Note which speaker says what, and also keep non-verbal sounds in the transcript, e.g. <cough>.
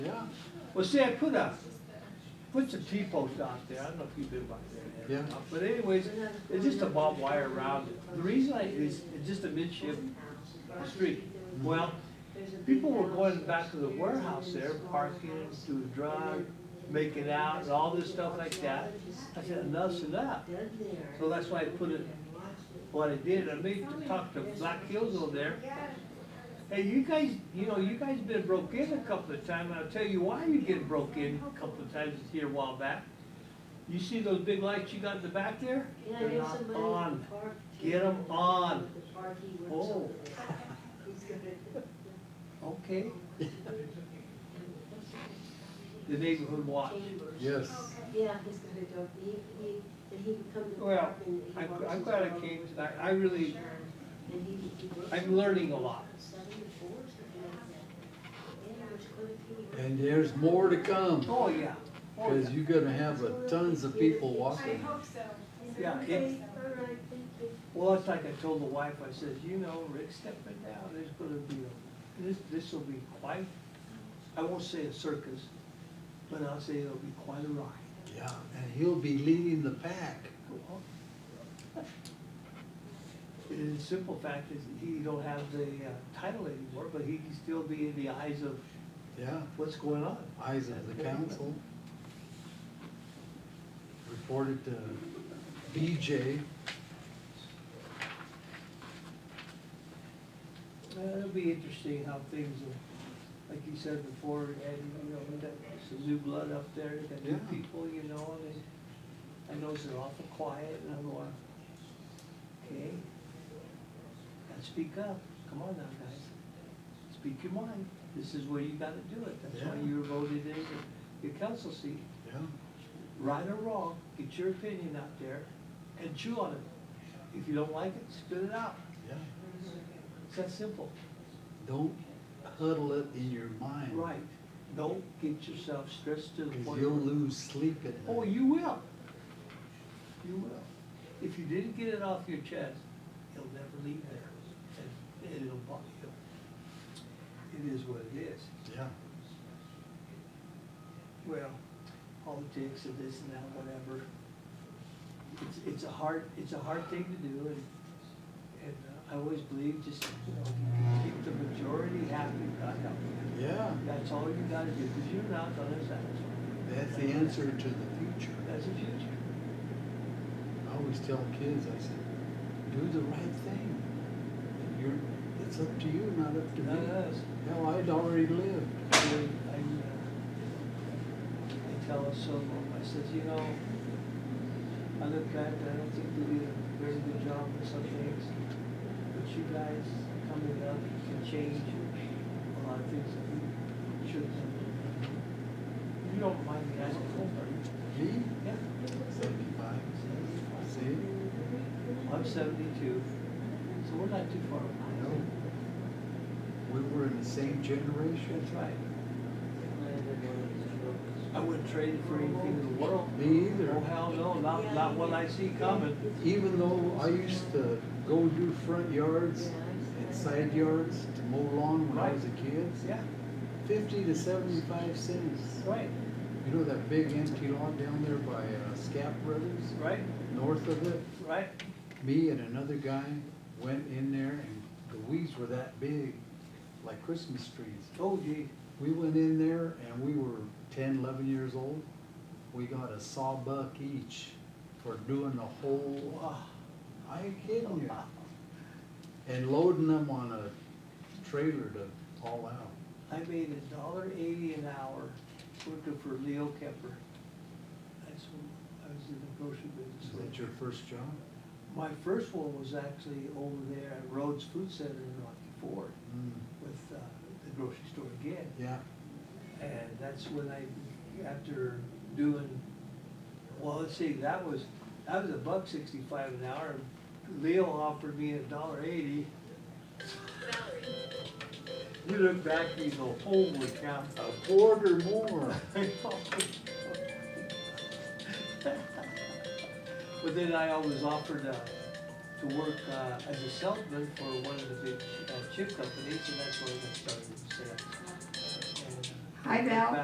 Speaker 1: Well, see, I put a, put some T-posts out there, I don't know if you've been by there.
Speaker 2: Yeah.
Speaker 1: But anyways, it's just a barbed wire around it. The reason I, is, it's just a midship street. Well, people were going back to the warehouse there, parking, doing drugs, making out, and all this stuff like that. I said, enough's enough. So that's why I put it, what I did, I made, talk to Black Hills over there. Hey, you guys, you know, you guys been broke in a couple of times, and I'll tell you why you get broke in a couple of times here a while back. You see those big lights you got in the back there? They're not on. Get 'em on. Oh. Okay. The neighborhood watch.
Speaker 2: Yes.
Speaker 3: Yeah, he's gonna go, he, he, and he can come to.
Speaker 1: Well,
Speaker 3: work and he
Speaker 1: I'm,
Speaker 3: walks
Speaker 1: I'm
Speaker 3: his
Speaker 1: glad I
Speaker 3: dog.
Speaker 1: came tonight. I really,
Speaker 3: And he, he works.
Speaker 1: I'm learning a lot.
Speaker 3: Seven to four, something like that. Yeah, which clinic he works.
Speaker 2: And there's more to come,
Speaker 1: Oh, yeah. Oh,
Speaker 2: because
Speaker 1: yeah.
Speaker 2: you're gonna have a tons of people
Speaker 4: I
Speaker 2: walking.
Speaker 4: hope so.
Speaker 1: Yeah,
Speaker 3: Okay,
Speaker 1: it-
Speaker 3: all right, thank you.
Speaker 1: Well, it's like I told the wife, I says, you know, Rick, stepping down, there's gonna be, a this, this'll be quite, I won't say a circus, but I'll say it'll be quite a ride.
Speaker 2: Yeah, and he'll be leading the pack.
Speaker 1: And <laughs> the simple fact is, he don't have the uh, title anymore, but he can still be in the eyes of
Speaker 2: Yeah,
Speaker 1: what's going on.
Speaker 2: eyes of the council. Reported to BJ.
Speaker 1: Uh, It'll be interesting how things, will- like you said before, and, you know, we got some new blood up there, we got new
Speaker 2: Yeah.
Speaker 1: people, you know, and it- I know they're awful quiet, and I'm going, okay, gotta speak up, come on now, guys, speak your mind, this is where you gotta do it, that's why
Speaker 2: Yeah.
Speaker 1: you were voted in your council seat,
Speaker 2: Yeah,
Speaker 1: right or wrong, get your opinion out there, and chew on it. If you don't like it, spit it out,
Speaker 2: yeah.
Speaker 1: it's that simple.
Speaker 2: Don't huddle it in your mind.
Speaker 1: Right, don't get yourself stressed to the
Speaker 2: Because
Speaker 1: point.
Speaker 2: you'll
Speaker 1: where-
Speaker 2: lose sleep at night.
Speaker 1: Oh, you will, you will. If you didn't get it off your chest, it'll never leave there, and and it'll bother you. It is what it is.
Speaker 2: Yeah,
Speaker 1: Well, politics and this and that, whatever. It's, it's a hard, it's a hard thing to do, and, and uh, I always believe just, you know, keep the majority happy, God help you.
Speaker 2: yeah.
Speaker 1: That's all you gotta do, because you're not gonna satisfy.
Speaker 2: That's the answer to the future.
Speaker 1: That's the future.
Speaker 2: I always tell kids, I said, do the right thing. You're, it's up to you, not up to me.
Speaker 1: Not us.
Speaker 2: Hell, I'd already lived.
Speaker 1: I, I, uh, I tell Silva, I says, you know, I look back and I don't think we did a very good job in some things, but you guys coming up can change a lot of things that we should have done. You don't mind me asking, are
Speaker 2: Me,
Speaker 1: you? Yeah.
Speaker 2: seventy-five, see?
Speaker 1: I'm seventy-two, so we're not too far behind.
Speaker 2: No. We were in the same generation.
Speaker 1: That's right. I wouldn't trade it for anything in the world.
Speaker 2: Me either.
Speaker 1: Oh, hell no, not, not what I see coming.
Speaker 2: Even though I used to go do front yards and side yards to mow lawn when I was a kid,
Speaker 1: Yeah,
Speaker 2: fifty to seventy-five cents.
Speaker 1: right,
Speaker 2: You know that big empty lot down there by uh, Scap Brothers,
Speaker 1: right,
Speaker 2: north of it?
Speaker 1: right.
Speaker 2: Me and another guy went in there and the weeds were that big, like Christmas trees.
Speaker 1: Oh gee,
Speaker 2: We went in there and we were 10, 11 years old. We got a sawbuck each for doing the whole,
Speaker 1: wow.
Speaker 2: I ain't kidding you. And loading them on a trailer to haul out.
Speaker 1: I made a dollar eighty an hour working for Leo Kemper. That's when I was in the grocery
Speaker 2: Is
Speaker 1: business.
Speaker 2: that your first job?
Speaker 1: My first one was actually over there at Rhodes Food Center in Rocky Ford
Speaker 2: Mm,
Speaker 1: with, uh, the grocery store again.
Speaker 2: Yeah,
Speaker 1: And that's when I, after doing, well, let's see, that was, that was a buck sixty-five an hour. Leo offered me a dollar eighty. You look back, and you go, holy cow. <laughs>
Speaker 2: a quarter more.
Speaker 1: But then I always offered uh, to work uh, as a salesman for one of the big uh, chip companies, and that's when I got started in sales. And, uh,
Speaker 5: Hi, Val.